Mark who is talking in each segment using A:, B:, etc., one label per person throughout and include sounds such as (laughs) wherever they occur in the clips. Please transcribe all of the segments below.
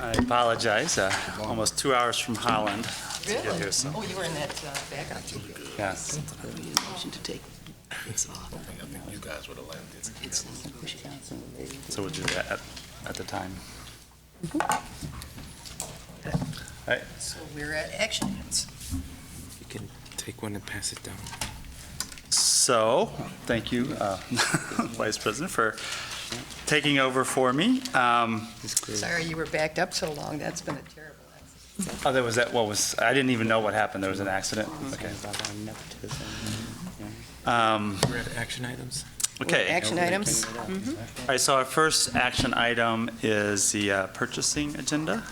A: I apologize, uh, almost two hours from Holland.
B: Really?
A: here, so-
B: Oh, you were in that uh, backup.
A: Yes.
C: Motion to take this off. It's push it out, so they-
A: So we'll do that at- at the time. All right,
B: So we're at action items.
D: You can take one and pass it down.
A: So, thank you, uh, (laughs) Vice President, for taking over for me. Um,
B: Sorry you were backed up so long. That's been a terrible accident.
A: Oh, there was that, what was, I didn't even know what happened, there was an accident? Okay. Um,
D: We're at action items.
A: Okay.
B: Action items. Mm-hmm.
A: All right, so our first action item is the uh, purchasing agenda.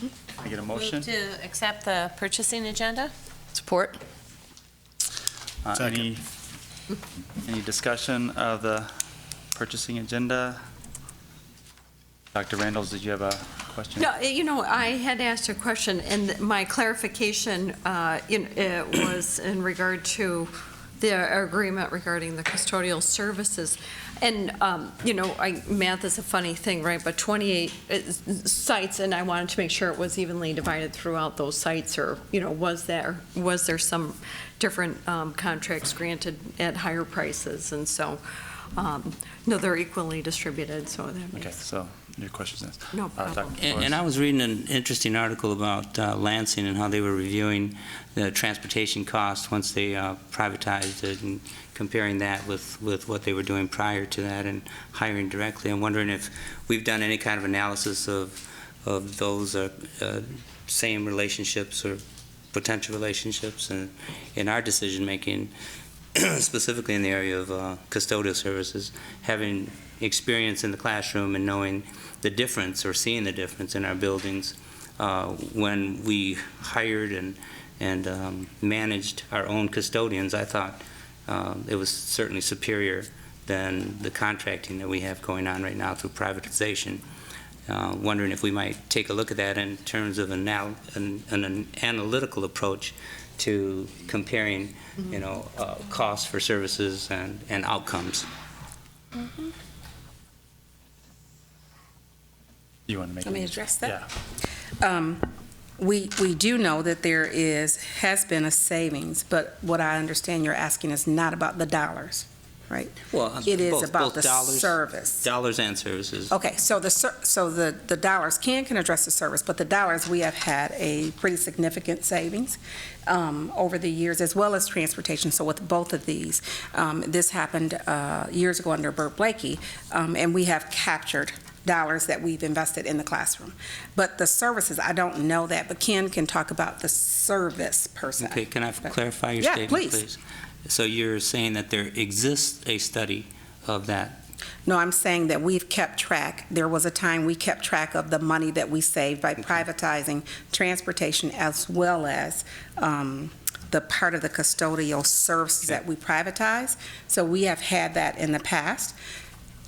A: Can I get a motion?
E: Move to accept the purchasing agenda?
B: Support.
A: Uh, Any, any discussion of the purchasing agenda? Dr. Randalls, did you have a question?
F: No, eh, you know, I had asked a question, and my clarification uh, in- uh, was in regard to the agreement regarding the custodial services. And, um, you know, I, math is a funny thing, right? But 28 is- sites, and I wanted to make sure it was evenly divided throughout those sites, or, you know, was there, was there some different um, contracts granted at higher prices? And so, um, no, they're equally distributed, so that
A: Okay,
F: makes
A: so your question's answered.
F: no
A: Uh,
F: problem.
A: Dr.
G: And and I was reading an interesting article about uh, Lansing and how they were reviewing the transportation costs once they uh, privatized it and comparing that with, with what they were doing prior to that and hiring directly. I'm wondering if we've done any kind of analysis of, of those uh, uh, same relationships or potential relationships in, in our decision-making, (clears throat) specifically in the area of uh, custodial services, having experience in the classroom and knowing the difference or seeing the difference in our buildings uh, when we hired and, and um, managed our own custodians, I thought uh, it was certainly superior than the contracting that we have going on right now through privatization. Uh, Wondering if we might take a look at that in terms of anal- an an analytical approach to comparing, you know, uh, costs for services and, and outcomes.
A: You want to make?
E: Let me
A: any-
E: address that.
A: Yeah.
H: Um, We, we do know that there is, has been a savings, but what I understand you're asking is not about the dollars.
G: Well,
H: It is
G: both-
H: about
G: both
H: the
G: dollars-
H: service.
G: Dollars and services.
H: Okay, so the, ser- so the, the dollars, Ken can address the service, but the dollars, we have had a pretty significant savings um, over the years, as well as transportation. So with both of these, um, this happened uh, years ago under Bert Blakey, um, and we have captured dollars that we've invested in the classroom. But the services, I don't know that, but Ken can talk about the service per se.
G: Okay, can I f- clarify your
H: Yeah,
G: statement,
H: please.
G: please? So you're saying that there exists a study of that?
H: No, I'm saying that we've kept track. There was a time we kept track of the money that we saved by privatizing transportation as well as um, the part of the custodial services that we privatized. So we have had that in the past.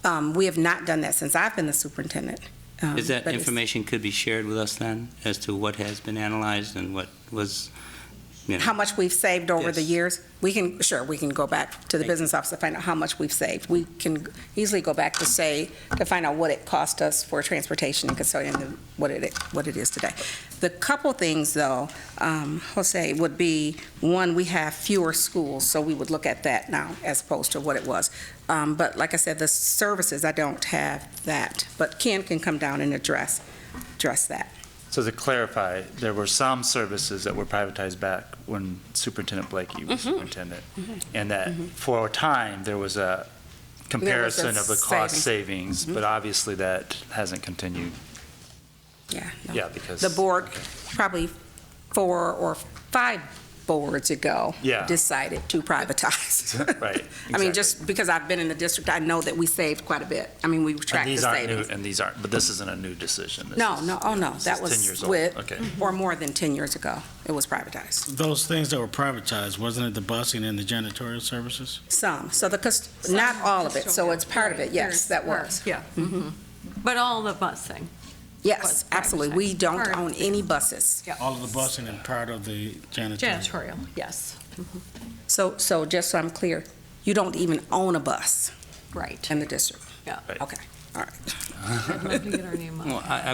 H: Um, We have not done that since I've been the superintendent. Um,
G: Is that
H: but it's-
G: information could be shared with us then, as to what has been analyzed and what was, you know?
H: How much we've saved over the
G: Yes.
H: years? We can, sure, we can go back to the
G: Thank you.
H: business office to find out how much we've saved. We can easily go back to say, to find out what it cost us for transportation and custodian, and what it, what it is today. The couple things, though, um, Jose, would be, one, we have fewer schools, so we would look at that now as opposed to what it was. Um, But like I said, the services, I don't have that, but Ken can come down and address, address that.
A: So to clarify, there were some services that were privatized back when Superintendent Blakey
H: Mm-hmm.
A: was superintendent. And that for a time, there was a comparison of the cost savings,
H: Mm-hmm.
A: but obviously that hasn't continued.
H: Yeah. no.
A: Yeah, because.
H: the board, probably four or five boards ago,
A: Yeah.
H: decided to privatize.
A: (laughs) Right,
H: I mean,
A: exactly.
H: just because I've been in the district, I know that we saved quite a bit. I mean, we
A: And
H: tracked the
A: these aren't new,
H: savings.
A: and these aren't, but this isn't a new decision. This
H: No,
A: is-
H: no, oh, no,
A: this is
H: that
A: 10 years
H: was
A: old.
H: with,
A: Okay.
H: or more than 10 years ago, it was privatized.
I: Those things that were privatized, wasn't it the busing and the janitorial services?
H: Some, so the, cust- not all of it, so it's part of it,
F: Right,
H: yes,
F: there's
H: that Mm-hmm.
F: part,
H: was.
F: Yeah. Mm-hmm. But all the busing.
H: Yes,
F: was
H: absolutely, we
F: privatized.
H: don't
F: Part of
H: own
F: it.
H: any buses.
I: All of the busing and part of the janitorial.
F: Janitorial, yes,
H: So, so just so I'm clear, you don't even own a bus
F: right.
H: in the district?
F: Yeah.
A: Right.
H: Okay, all right.
F: I'd love to get our name on.
G: Well, I- I